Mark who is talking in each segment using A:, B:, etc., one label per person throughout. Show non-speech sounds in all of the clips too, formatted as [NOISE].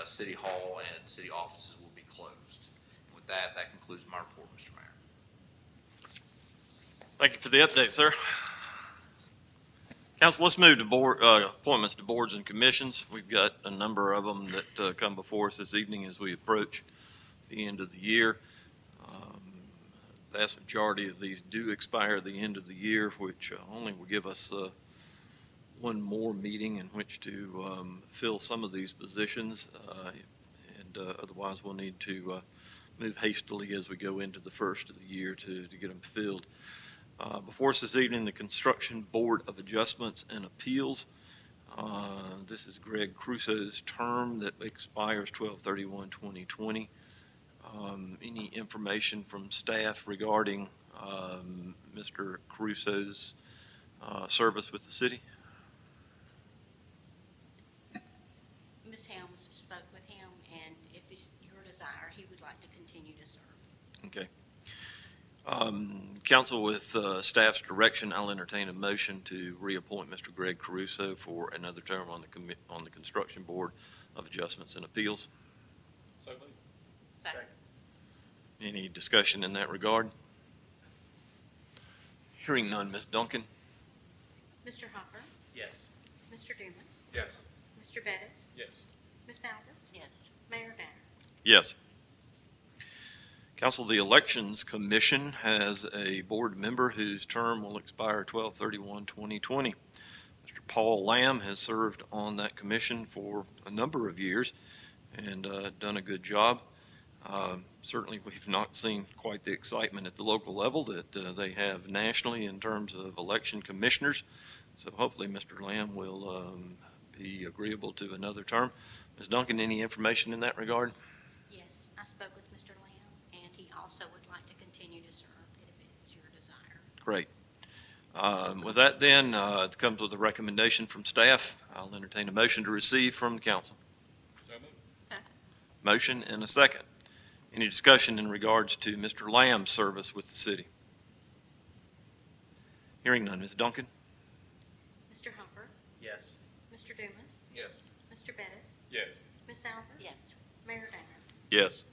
A: uh, City Hall and city offices will be closed. With that, that concludes my report, Mr. Mayor.
B: Thank you for the update, sir. Council, let's move to board, uh, appointments to boards and commissions. We've got a number of them that, uh, come before us this evening as we approach the end of the year. Um, the Vast majority of these do expire at the end of the year, which uh, only will give us, uh, one more meeting in which to, um, fill some of these positions. Uh, and, uh, otherwise we'll need to, uh, move hastily as we go into the first of the year to, to get them filled. Uh, Before us this evening, the Construction Board of Adjustments and Appeals. Uh, This is Greg Crusoe's term that expires 12/31/2020. Um, Any information from staff regarding um, Mr. Crusoe's uh, service with the city?
C: Ms. Helms spoke with him, and if it's your desire, he would like to continue to serve.
B: Okay. Um, Council, with uh, staff's direction, I'll entertain a motion to reappoint Mr. Greg Caruso for another term on the, commi- on the Construction Board of Adjustments and Appeals.
D: So moved.
C: So,
B: Any discussion in that regard? Hearing none, Ms. Duncan?
C: Mr. Hopper,
D: Yes.
C: Mr. Dumas,
D: Yes.
C: Mr. Bettis.
D: Yes.
C: Ms. Albert. Yes. Mayor Danner.
B: Yes. Council, the Elections Commission has a board member whose term will expire 12/31/2020. Mr. Paul Lamb has served on that commission for a number of years and uh, done a good job. Um, Certainly, we've not seen quite the excitement at the local level that uh, they have nationally in terms of election commissioners. So hopefully, Mr. Lamb will um, be agreeable to another term. Ms. Duncan, any information in that regard?
C: Yes, I spoke with Mr. Lamb, and he also would like to continue to serve if it's your desire.
B: Great. Um, With that then, uh, it comes with a recommendation from staff. I'll entertain a motion to receive from the council.
D: So moved.
C: So,
B: Motion and a second. Any discussion in regards to Mr. Lamb's service with the city? Hearing none, Ms. Duncan?
C: Mr. Hopper,
D: Yes.
C: Mr. Dumas,
D: Yes.
C: Mr. Bettis,
D: Yes.
C: Ms. Albert. Yes. Mayor Danner.
B: Yes.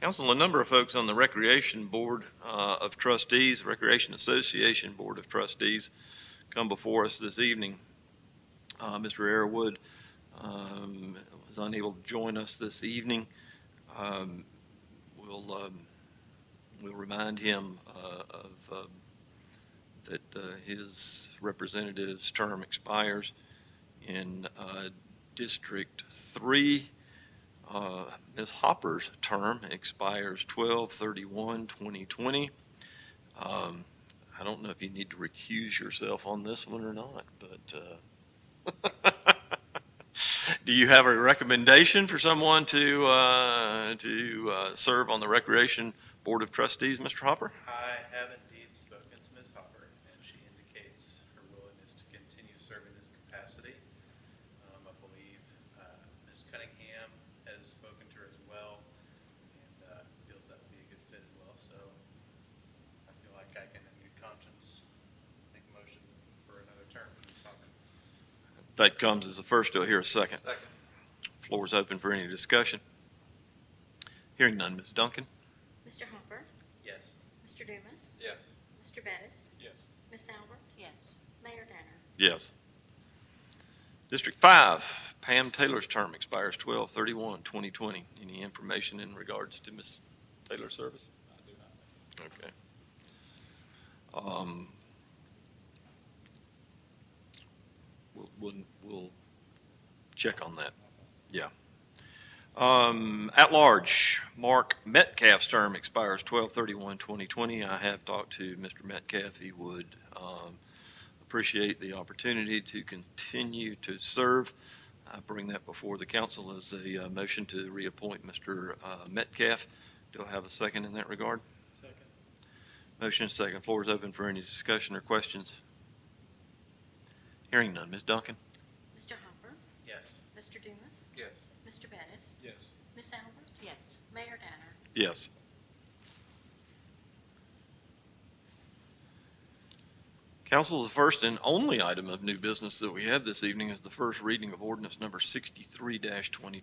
B: Council, a number of folks on the Recreation Board uh, of Trustees, Recreation Association Board of Trustees, come before us this evening. Uh, Mr. Airwood um, was unable to join us this evening. Um, We'll, um, we'll remind him uh, of, uh, that uh, his representative's term expires in uh, District Three. Uh, Ms. Hopper's term expires 12/31/2020. Um, I don't know if you need to recuse yourself on this one or not, but uh, [LAUGHS] do you have a recommendation for someone to, uh, to uh, serve on the Recreation Board of Trustees, Mr. Hopper?
D: I have indeed spoken to Ms. Hopper, and she indicates her willingness to continue serving this capacity. Um, I believe, uh, Ms. Cunningham has spoken to her as well, and, uh, feels that would be a good fit as well, so I feel like I can, in good conscience, make a motion for another term for Ms. Hopper.
B: That comes as a first. Do I hear a second?
D: Second.
B: Floor is open for any discussion. Hearing none, Ms. Duncan?
C: Mr. Hopper,
D: Yes.
C: Mr. Dumas.
D: Yes.
C: Mr. Bettis,
D: Yes.
C: Ms. Albert. Yes. Mayor Danner.
B: Yes. District Five, Pam Taylor's term expires 12 31 2020 Any information in regards to Ms. Taylor's service?
D: I do not.
B: Okay. Um, We'll, we'll, we'll check on that. Yeah. Um, At large, Mark Metcalf's term expires 12/31/2020. I have talked to Mr. Metcalf. He would um, appreciate the opportunity to continue to serve. I bring that before the council as a uh, motion to reappoint Mr. uh, Metcalf. Do I have a second in that regard?
D: Second.
B: Motion is second. Floor is open for any discussion or questions. Hearing none. Ms. Duncan?
C: Mr. Hopper,
D: Yes.
C: Mr. Dumas,
D: Yes.
C: Mr. Bettis,
D: Yes.
C: Ms. Albert? Yes. Mayor Danner?
B: Yes. Council, the first and only item of new business that we have this evening is the first reading of ordinance number sixty-three twenty